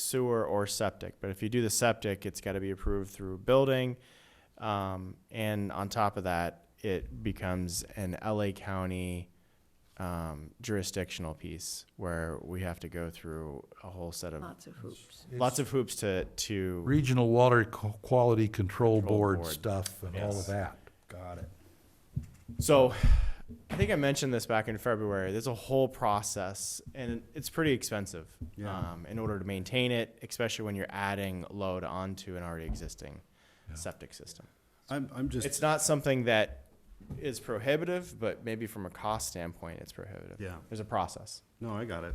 sewer or septic. But if you do the septic, it's got to be approved through building. Um, and on top of that, it becomes an LA County um, jurisdictional piece where we have to go through a whole set of Lots of hoops. lots of hoops to to Regional Water Co- Quality Control Control Board Board. stuff and all Yes. of that. Got it. So I think I mentioned this back in February. There's a whole process and it's pretty expensive Yeah. um, in order to maintain it, especially when you're adding load onto an already existing septic system. I'm, I'm It's just, not something that is prohibitive, but maybe from a cost standpoint, it's prohibitive. Yeah. There's a process. no, I got it.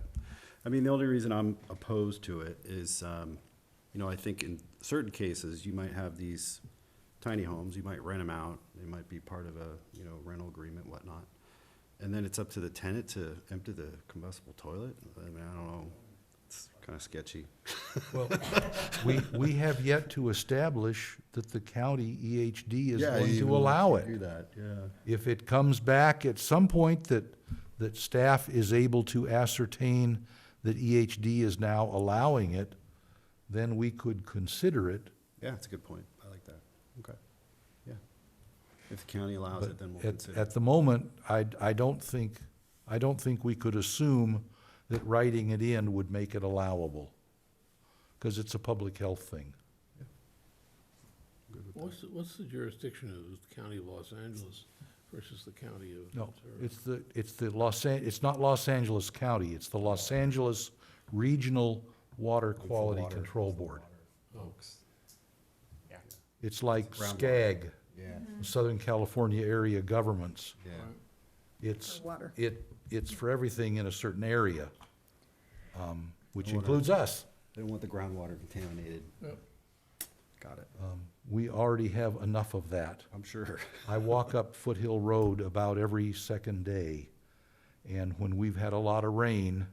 I mean, the only reason I'm opposed to it is, um, you know, I think in certain cases, you might have these tiny homes, you might rent them out, they might be part of a, you know, rental agreement, whatnot. And then it's up to the tenant to empty the combustible toilet. I mean, I don't know, it's kind of sketchy. Well, we, we have yet to establish that the county EHD is Yeah, going even to allow Do it. that, yeah. If it comes back at some point that, that staff is able to ascertain that EHD is now allowing it, then we could consider it. Yeah, that's a good point. I like that. Okay. Yeah. If the county allows But it, then we'll at, consider. at the moment, I, I don't think, I don't think we could assume that writing it in would make it allowable, because it's a public health thing. What's, the- what's the jurisdiction of the county of Los Angeles versus the county of? No, Ventura? it's the, it's the Los An, it's not Los Angeles County, it's the Los Angeles Regional Water Quality Control Board. Yeah. It's like Groundwater. SCAG, Yeah, Southern California Area Governments. yeah. It's, For water. it, it's for everything in a certain area, um, which Water. includes us. They want the groundwater contaminated. Yep. Got it. Um, We already have enough of that. I'm sure. I walk up Foothill Road about every second day, and when we've had a lot of rain,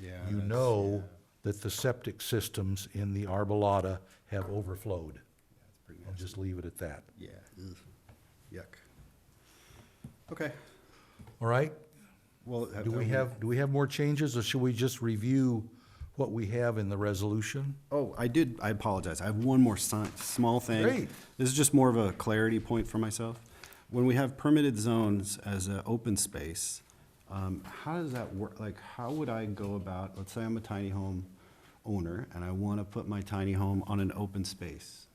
Yeah. you that's- know that the septic systems in the Arbolata have overflowed. that's pretty I'll nasty. just leave it at that. Yeah. ugh, Yuck. Okay. All right? Well. Do we have, do we have more changes, or should we just review what we have in the resolution? Oh, I did, I apologize. I have one more si- small thing. Great. This is just more of a clarity point for myself. When we have permitted zones as an open space, um, how does that work? Like, how would I go about, let's say I'm a tiny home owner and I want to put my tiny home on an open space.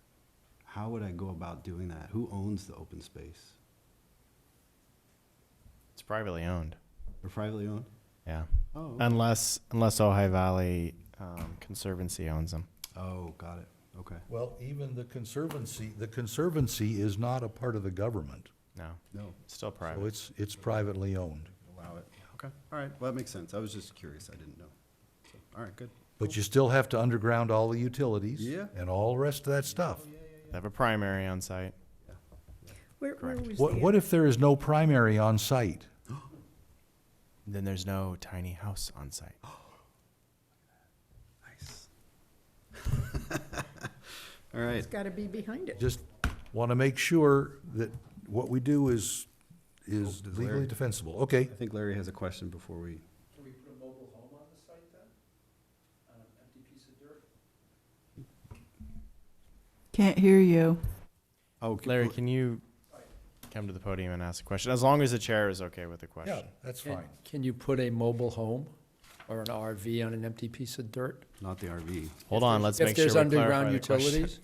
How would I go about doing that? Who owns the open space? It's privately owned. Or privately owned? Yeah. Oh, okay. Unless unless Ojai Valley um, Conservancy owns them. oh, got it. Okay. Well, even the Conservancy, the Conservancy is not a part of the government, No. No, It's still so private. it's, it's privately owned. allow it. Okay. All right. Well, that makes sense. I was just curious. I didn't know. So, All right, good. But you still have to underground all the utilities. Yeah. And all the rest of that stuff. They have a primary on site. Where, where was What, what the, if there is no primary on site? Then there's no tiny house on site. Nice. All right. it's gotta be behind it. Just want to make sure that what we do is, is Well, legally Larry- defensible. Okay, I think Larry has a question before we. Can we put a mobile home on the site then? On an empty piece of dirt? Can't hear you. Oh, Larry, can you come to the podium and ask a question? As long as the chair is okay with the question. yeah, that's fine. Can you put a mobile home or an RV on an empty piece of dirt? Not the RV. Hold on, let's make If sure we there's clarify underground the question. utilities,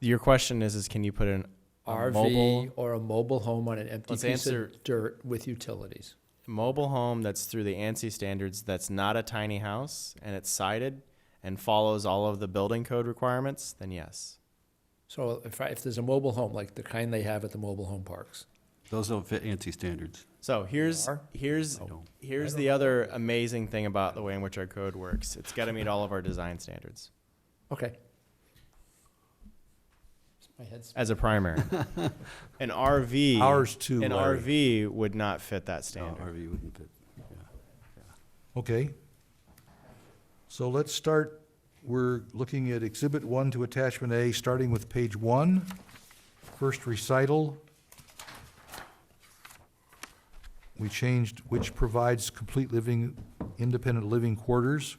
Your question is, is can you put in a mobile, RV or a mobile home on an empty Let's piece answer- of dirt with utilities? mobile home that's through the ANSI standards, that's not a tiny house, and it's sided and follows all of the building code requirements, then yes. So if, I- if there's a mobile home, like the kind they have at the mobile home parks, Those don't fit ANSI standards. So here's, are? here's, No. here's the other amazing thing about the way in which our code works. It's gotta meet all of our design standards okay. My head's as a primary. An RV. Ours too, An Larry. RV would not fit that No, standard. RV wouldn't fit. Yeah. Okay. So let's start, we're looking at Exhibit 1 to Attachment A, starting with page 1, first recital. We changed, which provides complete living, independent living quarters.